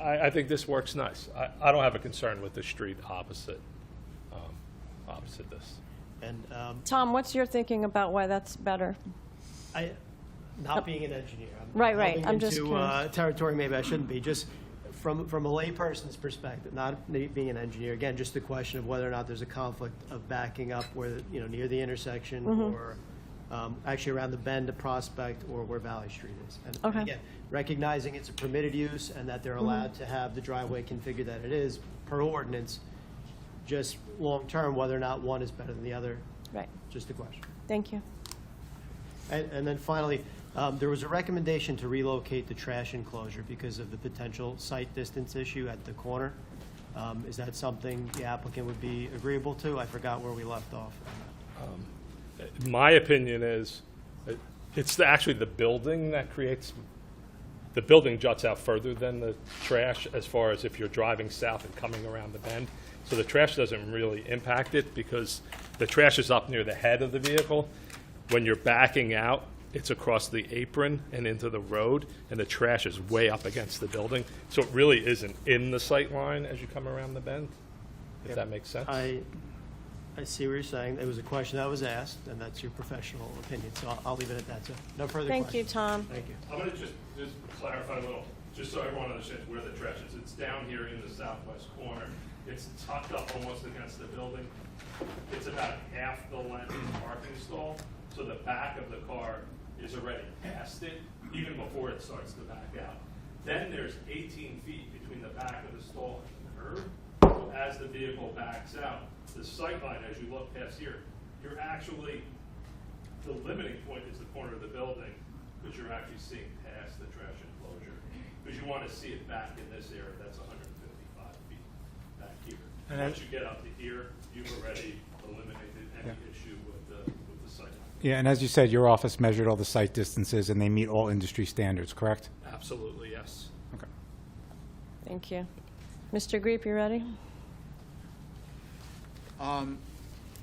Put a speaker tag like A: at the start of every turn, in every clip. A: I, I think this works nice. I, I don't have a concern with the street opposite, um, opposite this.
B: And um,
C: Tom, what's your thinking about why that's better?
B: I, not being an engineer, I'm
C: Right, right.
B: delving
C: I'm just
B: into,
C: curious.
B: uh, territory maybe I shouldn't be. Just from from a layperson's perspective, not me being an engineer. Again, just the question of whether or not there's a conflict of backing up where you know near the intersection
C: Mm-hmm.
B: or um, actually around the bend of Prospect or where Valley Street is. And
C: Okay.
B: again, recognizing it's a permitted use and that they're allowed
C: Mm-hmm.
B: to have the driveway configured that it is per ordinance. Just long term, whether or not one is better than the other,
C: Right,
B: just the question.
C: thank you.
B: And, and then finally, um, there was a recommendation to relocate the trash enclosure because of the potential site distance issue at the corner. Um, is that something the applicant would be agreeable to? I forgot where we left off.
A: My opinion is, it- it's the- actually the building that creates, the building juts out further than the trash as far as if you're driving south and coming around the bend. So the trash doesn't really impact it because the trash is up near the head of the vehicle. When you're backing out, it's across the apron and into the road, and the trash is way up against the building. So it really isn't in the sight line as you come around the bend, if that makes sense.
B: I, I see what you're saying. It was a question that was asked, and that's your professional opinion, so I'll, I'll leave it at that. So no further questions.
C: Thank you, Tom.
B: Thank you.
A: I'm gonna just, just clarify a little, just so everyone understands where the trash is. It's down here in the southwest corner. It's tucked up almost against the building. It's about half the length of the parking stall, so the back of the car is already past it, even before it starts to back out. Then there's eighteen feet between the back of the stall and the curb. So as the vehicle backs out, the sight line as you look past here, you're actually the limiting point is the corner of the building, because you're actually seeing past the trash enclosure. Because you want to see it back in this area, that's 155 feet back here.
D: And
A: Once
D: that-
A: you get up to here, you've already eliminated any issue with the, with the site.
D: Yeah, and as you said, your office measured all the site distances, and they meet all industry standards, correct?
A: Absolutely, yes.
D: Okay.
C: Thank you. Mr. Greep, you ready?
E: Um,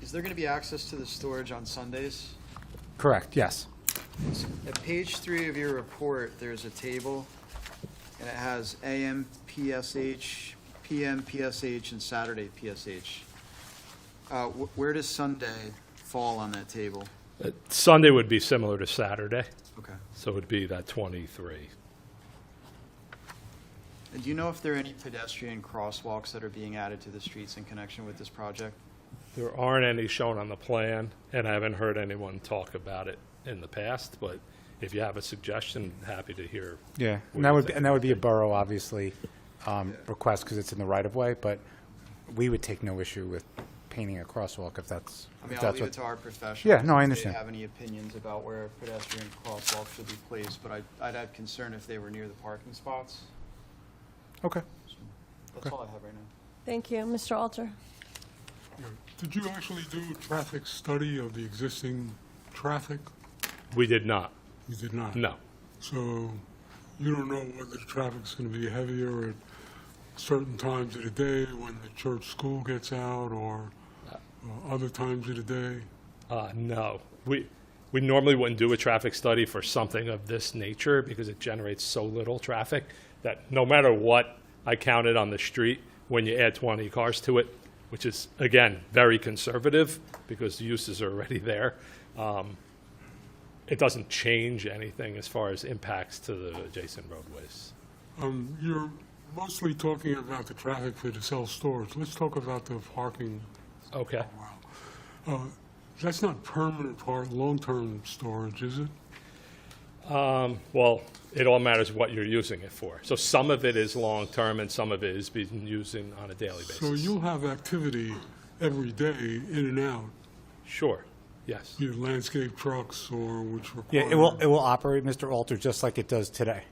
E: is there gonna be access to the storage on Sundays?
D: Correct, yes.
E: At page three of your report, there's a table, and it has AM PSH, PM PSH, and Saturday PSH. Uh, wh- where does Sunday fall on that table?
A: Uh, Sunday would be similar to Saturday,
E: Okay.
A: so it would be that 23.
E: And do you know if there are any pedestrian crosswalks that are being added to the streets in connection with this project?
A: There aren't any shown on the plan, and I haven't heard anyone talk about it in the past, but if you have a suggestion, happy to hear.
D: Yeah,
A: what
D: and that
A: you
D: would, be-
A: think.
D: and that would be a borough, obviously, um, request, because it's in the right-of-way, but we would take no issue with painting a crosswalk if that's,
E: I mean,
D: if
E: I'll
D: that's
E: leave it
D: what.
E: to our professionals.
D: Yeah, no, I
E: If
D: understand.
E: they have any opinions about where pedestrian crosswalks should be placed, but I'd, I'd have concern if they were near the parking spots.
D: Okay.
E: That's all I have right now.
C: Thank you. Mr. Alter?
F: Yeah. Did you actually do a traffic study of the existing traffic?
A: We did not,
F: You did not?
A: no.
F: So you don't know whether the traffic's going to be heavier at certain times of the day when the church school gets out or uh, other times of the day?
A: Uh, no, we, we normally wouldn't do a traffic study for something of this nature because it generates so little traffic that no matter what I counted on the street, when you add 20 cars to it, which is, again, very conservative because the uses are already there, um, it doesn't change anything as far as impacts to the adjacent roadways.
F: Um, You're mostly talking about the traffic for the self-storage. Let's talk about the parking.
A: Okay.
F: Uh, That's not permanent part, long-term storage, is it?
A: Well, it all matters what you're using it for. So some of it is long-term and some of it is being used in- on a daily basis.
F: So you'll have activity every day in and out,
A: Sure, yes.
F: your landscape trucks or which require.
D: Yeah, it will, it will operate, Mr. Alter, just like it does today,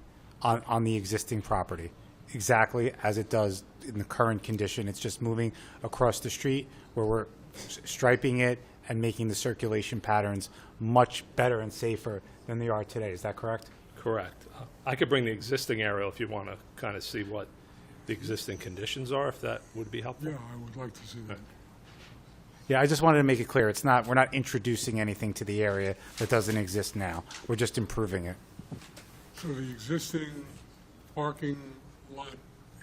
D: on, on the existing property, exactly as it does in the current condition. It's just moving across the street where we're s- striping it and making the circulation patterns much better and safer than they are today. Is that correct?
A: Correct. Uh, I could bring the existing aerial if you want to kind of see what the existing conditions are, if that would be helpful.
F: Yeah, I would like to see that.
D: Yeah, I just wanted to make it clear, it's not, we're not introducing anything to the area that doesn't exist now. We're just improving it.
F: So the existing parking lot